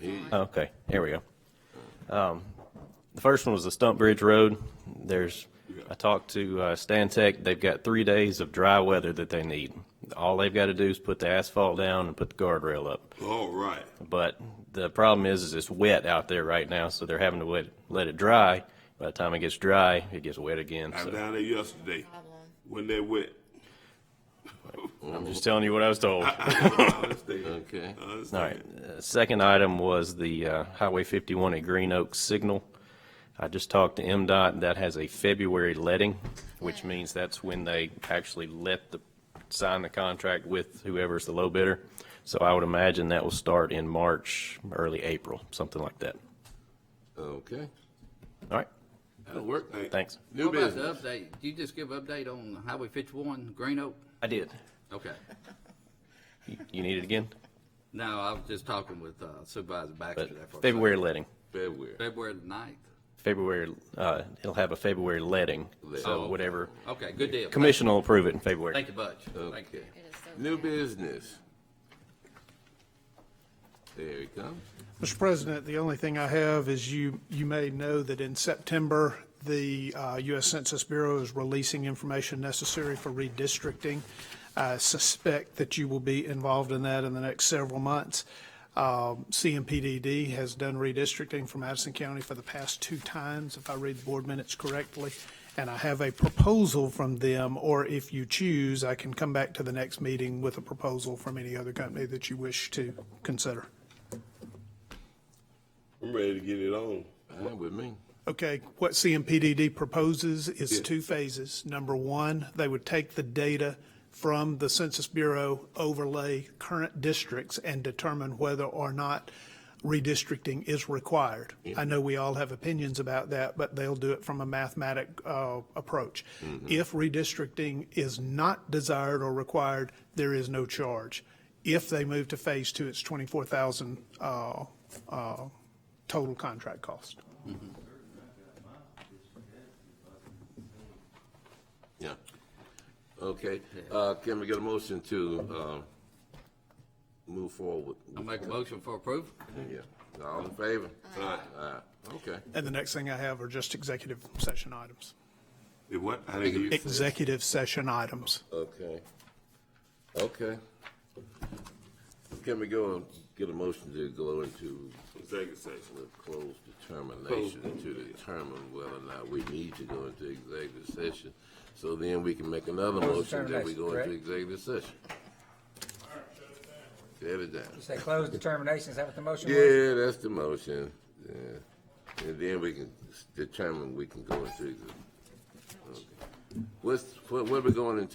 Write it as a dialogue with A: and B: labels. A: Okay, here we go. Um, the first one was the Stump Bridge Road. There's, I talked to uh, Stan Tech. They've got three days of dry weather that they need. All they've got to do is put the asphalt down and put the guardrail up.
B: All right.
A: But the problem is, is it's wet out there right now, so they're having to wet, let it dry. By the time it gets dry, it gets wet again.
B: I was
A: So
B: down there yesterday when they went.
A: I'm just telling you what I was told.
B: I understand.
C: Okay.
B: I understand.
A: All right. Uh, Second item was the uh, Highway 51 at Green Oak Signal. I just talked to MDOT, and that has a February letting, which means that's when they actually let the, sign the contract with whoever's the low bidder. So I would imagine that will start in March, early April, something like that.
C: Okay.
A: All right,
C: That'll work.
A: thanks.
C: New
D: What about the
C: business.
D: update? Did you just give update on Highway fifty-one, Green Oak?
A: I did.
D: Okay.
A: You need it again?
D: No, I was just talking with uh, Supervisor Baxter there for a
A: But
D: second.
A: February letting,
C: February.
D: February the ninth.
A: February, uh, it'll have a February letting, so
C: Oh.
A: whatever.
D: Okay, good deal.
A: Commission will approve it in February.
D: Thank you, Butch. Thank you.
C: Okay. New business. There he comes.
E: Mr. President, the only thing I have is you, you may know that in September, the uh, U.S. Census Bureau is releasing information necessary for redistricting. I suspect that you will be involved in that in the next several months. Um, CMPDD has done redistricting for Madison County for the past two times, if I read the board minutes correctly. And I have a proposal from them, or if you choose, I can come back to the next meeting with a proposal from any other company that you wish to consider.
B: I'm ready to get it on.
C: Fine with me.
E: Okay, what CMPDD proposes is two phases. Number one, they would take the data from the Census Bureau, overlay current districts, and determine whether or not redistricting is required. I know we all have opinions about that, but they'll do it from a mathematic uh, approach. If redistricting is not desired or required, there is no charge. If they move to phase two, it's 24,000 uh, uh, total contract cost.
C: Yeah. Okay. Uh, can we get a motion to, um, move forward?
D: I'll make a motion for approval.
C: Yeah. All in favor? Aye. Okay.
E: And the next thing I have are just executive session items.
B: It what? I didn't hear you. say it.
E: Executive session items.
C: Okay. Okay. Can we go and get a motion to go into
B: Executive session.
C: the closed determination to determine whether or not we need to go into executive session? So then we can make another motion that we go into executive session. Shut it down.
F: Say closed determination, is that what the motion was?
C: Yeah, that's the motion. Yeah. And then we can s- determine we can go into executive. Okay. What's, what, what are we going into?